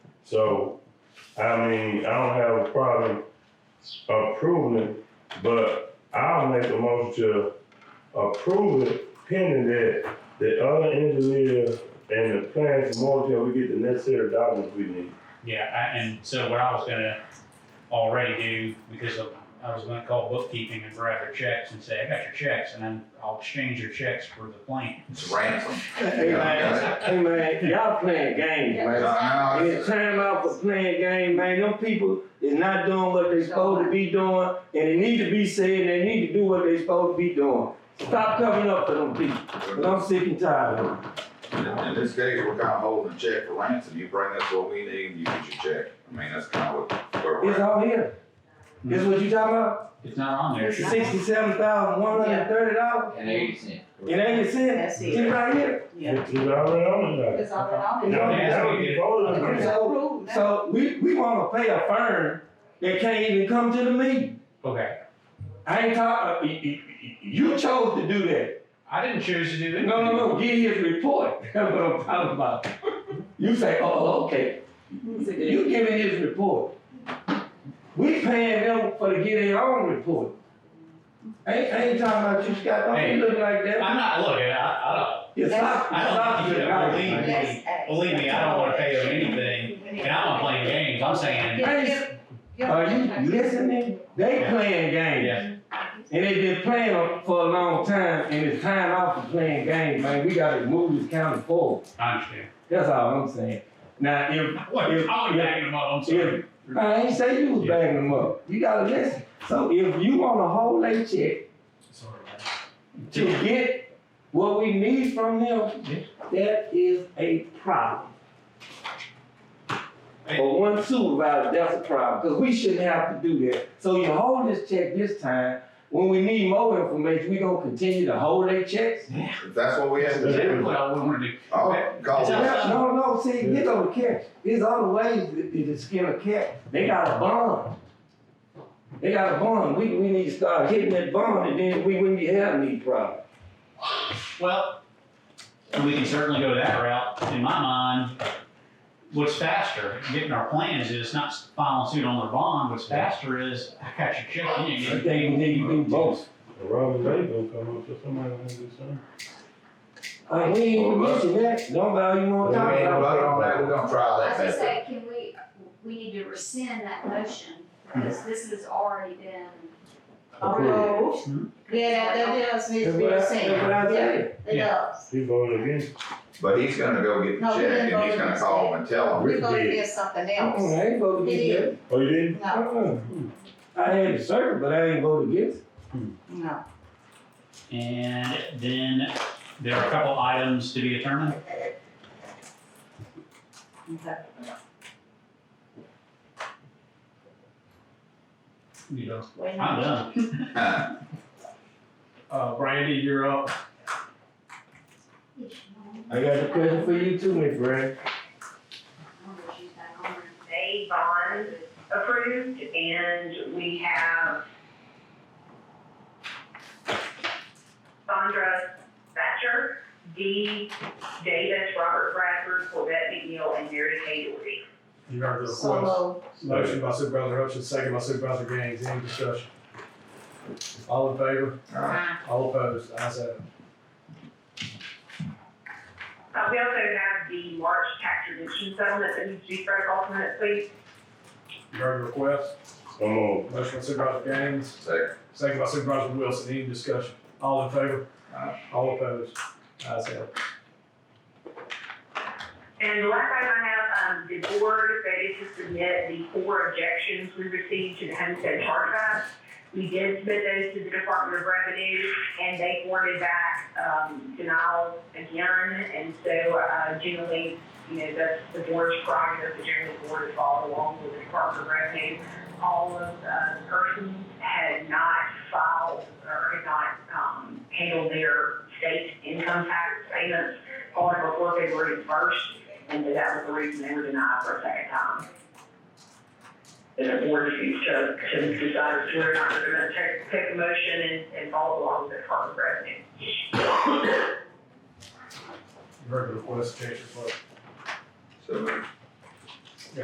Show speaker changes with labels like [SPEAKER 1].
[SPEAKER 1] So, I mean, I don't have a problem approving it, but I'll make a motion to approve it pending that the other engineer and the plans more till we get the necessary documents we need.
[SPEAKER 2] Yeah, I, and so what I was gonna already do, because of- I was gonna call bookkeeping and grab their checks and say, I got your checks, and then I'll exchange your checks for the plan.
[SPEAKER 3] It's ransom.
[SPEAKER 4] Hey, man, hey, man, y'all playing games, man.
[SPEAKER 3] Now,
[SPEAKER 4] And it's time out for playing game, man. Them people is not doing what they supposed to be doing, and they need to be saying they need to do what they supposed to be doing. Stop covering up for them people, 'cause I'm sick and tired of them.
[SPEAKER 3] In in this case, we're kind of holding a check for ransom. You bring us what we need, you get your check. I mean, that's kind of what, where we're
[SPEAKER 4] It's
[SPEAKER 3] at.
[SPEAKER 4] all here. This what you talking about?
[SPEAKER 2] It's not on there.
[SPEAKER 5] Yeah.
[SPEAKER 4] Sixty-seven thousand, one hundred and thirty dollars?
[SPEAKER 6] And eighty cent.
[SPEAKER 4] It ain't a cent.
[SPEAKER 5] That's
[SPEAKER 4] It's
[SPEAKER 5] it.
[SPEAKER 4] right here.
[SPEAKER 5] Yeah.
[SPEAKER 1] It's already on the document.
[SPEAKER 5] It's all right.
[SPEAKER 1] Now, now we voted on
[SPEAKER 5] It's
[SPEAKER 1] it.
[SPEAKER 5] approved now.
[SPEAKER 4] So we, we wanna pay a firm that can't even come to the meeting.
[SPEAKER 2] Okay,
[SPEAKER 4] I ain't talking. y- y- y- You chose to do that.
[SPEAKER 2] I didn't choose to do it.
[SPEAKER 4] No, no, no. Get his report. That's what I'm talking about. You say, oh, okay. You giving his report. We paying them for to get their own report. I ain't, I ain't talking about you, Scott. Don't
[SPEAKER 2] Hey,
[SPEAKER 4] you look like
[SPEAKER 2] I'm
[SPEAKER 4] that?
[SPEAKER 2] not, look, I, I
[SPEAKER 4] You're
[SPEAKER 5] That's-
[SPEAKER 4] soft-
[SPEAKER 2] I don't
[SPEAKER 4] you're soft
[SPEAKER 2] think you
[SPEAKER 4] to the
[SPEAKER 2] can
[SPEAKER 4] guy,
[SPEAKER 2] believe
[SPEAKER 4] man.
[SPEAKER 5] Let's act.
[SPEAKER 2] believe me, I don't wanna pay them anything, don't, and I'm not playing games, I'm saying,
[SPEAKER 5] Yeah, yeah, yeah.
[SPEAKER 4] Are you listening? They playing games.
[SPEAKER 2] yeah,
[SPEAKER 4] And they been playing them for a long time, and it's time out for playing games, man. We gotta move this county forward.
[SPEAKER 2] I understand.
[SPEAKER 4] That's all I'm saying. Now, if,
[SPEAKER 2] What, I
[SPEAKER 4] if,
[SPEAKER 2] was
[SPEAKER 4] if-
[SPEAKER 2] backing them up, I'm sorry.
[SPEAKER 4] if, I ain't say you was
[SPEAKER 2] Yeah.
[SPEAKER 4] bagging them up. You gotta listen. So if you want a whole late check
[SPEAKER 2] Sorry.
[SPEAKER 4] to get what we need from them, that is a problem. For one supervisor, that's a problem, because we shouldn't have to do that. So you hold this check this time, when we need more information, we gonna continue to hold their checks?
[SPEAKER 3] If that's what we have to
[SPEAKER 2] Exactly
[SPEAKER 3] do,
[SPEAKER 2] what I wanna do.
[SPEAKER 3] oh, call
[SPEAKER 2] It's
[SPEAKER 3] it.
[SPEAKER 2] us.
[SPEAKER 4] Well, No, no, see, you don't catch. There's other ways to, to skin a cat. They got a bond. They got a bond. We, we need to start hitting that bond and then we wouldn't be having these problems.
[SPEAKER 2] Well, we can certainly go that route. In my mind, what's faster, getting our plans is not filing suit on their bond. What's faster is, I got your check, you ain't
[SPEAKER 4] I
[SPEAKER 2] getting
[SPEAKER 4] think we need to do both.
[SPEAKER 1] Robert Ray gonna come up, so somebody gonna do something.
[SPEAKER 4] Like, Uh, we ain't even mentioned that. Nobody even wanna
[SPEAKER 3] If we
[SPEAKER 4] talk
[SPEAKER 3] ain't
[SPEAKER 4] about
[SPEAKER 3] voted on that, we're gonna try
[SPEAKER 7] I was
[SPEAKER 3] that
[SPEAKER 7] gonna
[SPEAKER 3] method.
[SPEAKER 7] say, can we, we need to rescind that motion, because this has already been.
[SPEAKER 5] Approved. Yeah, that that does need to
[SPEAKER 4] That's
[SPEAKER 5] be
[SPEAKER 4] what I,
[SPEAKER 5] the
[SPEAKER 4] that's
[SPEAKER 5] same.
[SPEAKER 4] what I
[SPEAKER 5] Yeah,
[SPEAKER 4] said.
[SPEAKER 5] It does.
[SPEAKER 1] He voted against.
[SPEAKER 3] But he's gonna go get
[SPEAKER 5] No,
[SPEAKER 3] the
[SPEAKER 5] we
[SPEAKER 3] check
[SPEAKER 5] didn't
[SPEAKER 3] and he's
[SPEAKER 5] vote
[SPEAKER 3] gonna
[SPEAKER 5] against
[SPEAKER 3] call
[SPEAKER 5] it.
[SPEAKER 3] him and tell him.
[SPEAKER 5] We're gonna
[SPEAKER 1] did.
[SPEAKER 5] get something
[SPEAKER 4] Mm-mm,
[SPEAKER 5] else.
[SPEAKER 4] I ain't voted
[SPEAKER 5] It
[SPEAKER 4] against
[SPEAKER 5] is,
[SPEAKER 4] that.
[SPEAKER 1] Oh, you didn't?
[SPEAKER 5] no,
[SPEAKER 4] Mm-mm. I had to serve, but I ain't voted against it.
[SPEAKER 5] no.
[SPEAKER 2] it. And then there are a couple items to be determined.
[SPEAKER 5] Okay.
[SPEAKER 2] You know,
[SPEAKER 5] Wait a minute.
[SPEAKER 2] I'm done.
[SPEAKER 3] Huh.
[SPEAKER 2] Uh, Brandy, you're up.
[SPEAKER 4] I got a question for you too, Miss Brad.
[SPEAKER 8] a bond approved and we have Sandra Thatcher, Dee Davis, Robert Bradford, Corvette McNeil, and Mary Kay Doherty.
[SPEAKER 9] You heard the request.
[SPEAKER 5] Solo,
[SPEAKER 9] Motion by Supervisor Hutchins, second by Supervisor Gaines, any discussion? All in favor?
[SPEAKER 3] Uh,
[SPEAKER 9] All opposed? Ayes have it.
[SPEAKER 8] Uh, we also have the March tax redemption settlement that needs to be spread off minutes, please.
[SPEAKER 9] You heard the request.
[SPEAKER 1] Come on.
[SPEAKER 9] Motion by Supervisor Gaines,
[SPEAKER 3] second.
[SPEAKER 9] second by Supervisor Wilson, any discussion? All in favor?
[SPEAKER 3] Aye.
[SPEAKER 9] All opposed? Ayes have it.
[SPEAKER 8] And the last item I have, um, the board stated to submit the four objections we received to the homestead charge. We did submit those to the Department of Revenue, and they forwarded back, um, denials again. And so, uh, generally, you know, that's the board's prerogative, the general board to follow along with the Department of Revenue. All of, uh, the persons had not filed or had not, um, handled their state income tax payments on or before February first, and so that was the reason they were denied for a second time. And the board refused to, to decide whether or not they're gonna take, take the motion and, and follow along with the Department of Revenue.
[SPEAKER 9] You heard the request, change your vote.
[SPEAKER 3] So, moved.